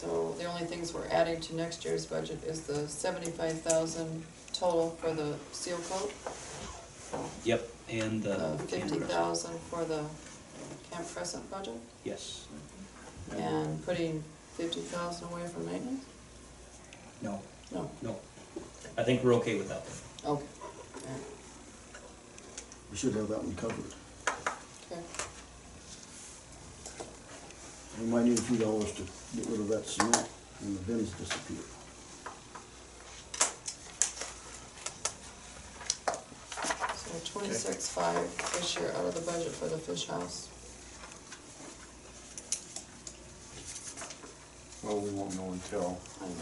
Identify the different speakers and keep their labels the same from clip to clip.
Speaker 1: the only things we're adding to next year's budget is the seventy-five thousand total for the seal coat,
Speaker 2: Yep, and the.
Speaker 1: Uh, the fifty
Speaker 2: cameras.
Speaker 1: thousand for the Camp Crescent budget,
Speaker 2: Yes,
Speaker 1: and putting fifty thousand away for maintenance?
Speaker 2: no,
Speaker 1: No,
Speaker 2: no. I think we're okay with that.
Speaker 1: okay,
Speaker 3: We should have that one covered.
Speaker 1: okay.
Speaker 3: We might need a few dollars to get rid of that cement when the bins disappear.
Speaker 1: So twenty-six five this year out of the budget for the fish house.
Speaker 4: Well, we won't know until,
Speaker 1: I know.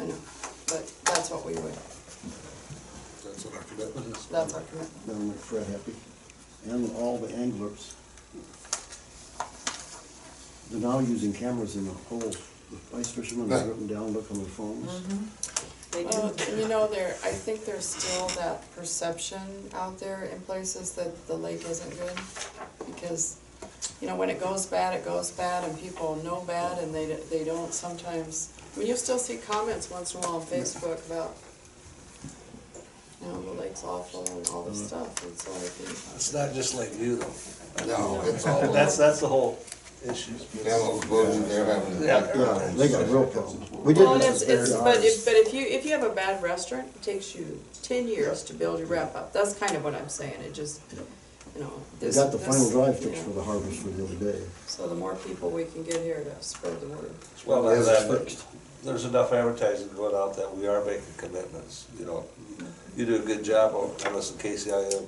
Speaker 1: I know, but that's what we would,
Speaker 4: that's what our commitment is.
Speaker 1: that's our commitment.
Speaker 3: That'll make Fred happy, and all the anglers. They're now using cameras in the holes. The ice fishermen have written down, look on their phones.
Speaker 1: Mm-hmm.
Speaker 5: They
Speaker 1: Uh,
Speaker 5: do.
Speaker 1: You know, there, I think there's still that perception out there in places that the lake isn't good. Because, you know, when it goes bad, it goes bad and people know bad and they, they don't sometimes. I mean, you still see comments once in a while on Facebook about, you know, the lake's awful and all this stuff and so I think.
Speaker 6: It's not just like you though.
Speaker 4: No, it's all,
Speaker 6: That's, that's the whole issue.
Speaker 4: Camel's Blues, they're having. a-
Speaker 6: Yeah.
Speaker 3: Yeah, they got real problems. We did
Speaker 1: Well, and
Speaker 3: this
Speaker 1: it's,
Speaker 3: as bad
Speaker 1: it's,
Speaker 3: as
Speaker 1: but
Speaker 3: ours.
Speaker 1: if, but if you, if you have a bad restaurant, it takes you ten years to build your wrap up. That's kind of what I'm saying. It just, you know.
Speaker 3: We
Speaker 1: this-
Speaker 3: got the final
Speaker 1: this,
Speaker 3: drive
Speaker 1: you
Speaker 3: fixed
Speaker 1: know.
Speaker 3: for the harvest for the other day.
Speaker 1: So the more people we can get here to spread the word.
Speaker 6: Well, uh,
Speaker 4: Is
Speaker 6: there's,
Speaker 4: first.
Speaker 6: that- there's enough advertising going out that we are making commitments, you know. You do a good job on, on us in KCIM,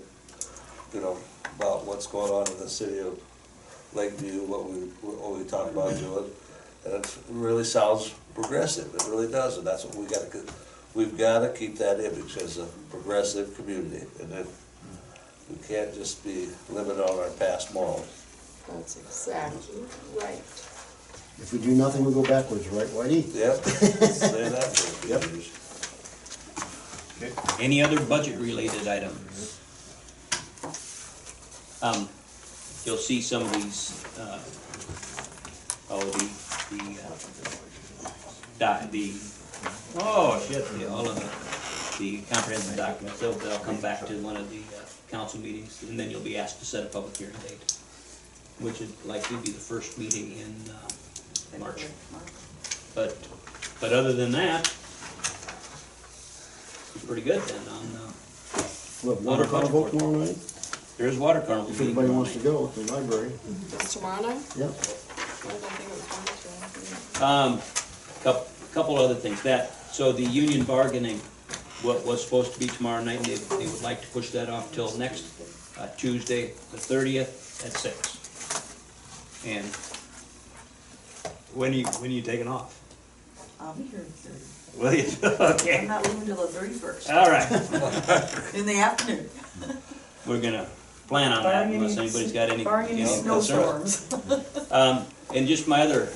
Speaker 6: you know, about what's going on in the city of Lakeview, what we, what we talk about doing. And it really sounds progressive, it really does, and that's what we gotta, co- we've gotta keep that image as a progressive community. And if, we can't just be living on our past morals.
Speaker 1: That's exactly right.
Speaker 3: If we do nothing, we go backwards, right, Whitey?
Speaker 6: Yep, say that for a few
Speaker 3: Yep.
Speaker 6: years.
Speaker 2: Any other budget-related items? Um, you'll see some of these, uh, oh, the, the, uh, doc, the, oh, shit, the, all of the, the comprehensive documents, they'll, they'll come back to one of the uh, council meetings, and then you'll be asked to set a public hearing date, which would likely be the first meeting in, uh, March. But, but other than that, pretty good then on, uh,
Speaker 3: We'll
Speaker 2: Water
Speaker 3: have water carnival
Speaker 2: budget.
Speaker 3: tomorrow night,
Speaker 2: there's water carnival.
Speaker 3: if
Speaker 2: meeting
Speaker 3: anybody wants to
Speaker 2: tomorrow
Speaker 3: go, at the library.
Speaker 1: It's tomorrow night?
Speaker 3: Yep,
Speaker 1: I don't think it was Monday,
Speaker 2: night. Um, couple, couple other things, that, so the union bargaining, what was supposed to be tomorrow night, they, they would like to push that off till next, uh, Tuesday, the thirtieth, at six. And when are you, when are you taking off?
Speaker 5: I'll be Um, here at thirty.
Speaker 2: Will you,
Speaker 5: I'm
Speaker 2: okay, Uh,
Speaker 5: not leaving till the thirty-first,
Speaker 2: all right.
Speaker 5: in the afternoon.
Speaker 2: we're gonna plan on that
Speaker 5: Barring any
Speaker 2: unless anybody's got any,
Speaker 5: Barring
Speaker 2: any
Speaker 5: any
Speaker 2: concerns.
Speaker 5: snowstorms.
Speaker 2: Um, and just my other,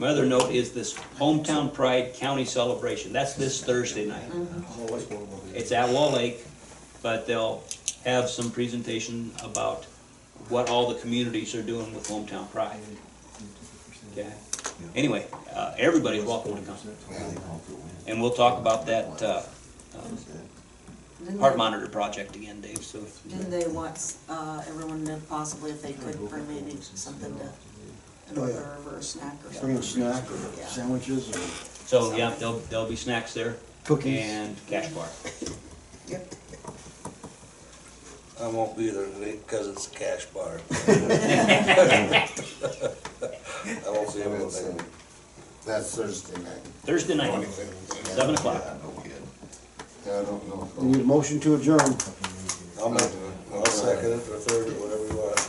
Speaker 2: my other note is this hometown pride county celebration, that's this Thursday night. It's at Wall Lake, but they'll have some presentation about what all the communities are doing with hometown pride. Okay, anyway, uh, everybody's welcome to come, and we'll talk about that, uh, um,
Speaker 5: Didn't
Speaker 2: heart
Speaker 5: they-
Speaker 2: monitor project again, Dave, so. if-
Speaker 5: Didn't they want, uh, everyone to possibly, if they could, bring maybe something to, an
Speaker 3: Oh, yeah.
Speaker 5: order or a snack or
Speaker 3: bring
Speaker 5: something?
Speaker 3: a snack or
Speaker 5: Yeah.
Speaker 3: sandwiches or
Speaker 2: So, yeah, there'll, there'll be snacks there.
Speaker 3: Cookies.
Speaker 2: And cash bar.
Speaker 5: Yep.
Speaker 6: I won't be there today because it's a cash bar. I won't be able to make it.
Speaker 4: That's Thursday night.
Speaker 2: Thursday night, seven o'clock.
Speaker 4: Yeah, I don't
Speaker 3: We need
Speaker 4: know.
Speaker 3: a motion to adjourn.
Speaker 6: I'll make it. I'll second it or third or whatever you want.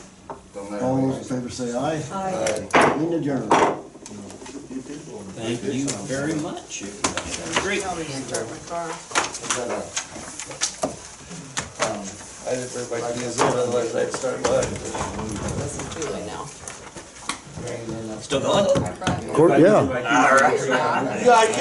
Speaker 4: Don't matter.
Speaker 3: All those in favor say aye.
Speaker 5: Hi.
Speaker 3: Meeting adjourned.
Speaker 2: Thank you very much. Have a Great.
Speaker 1: I think. Start my car.
Speaker 6: I didn't bring my keys in, otherwise I'd start mine.
Speaker 1: It's too late now.
Speaker 2: Still going?
Speaker 1: I brought it.
Speaker 3: yeah.
Speaker 1: Yeah.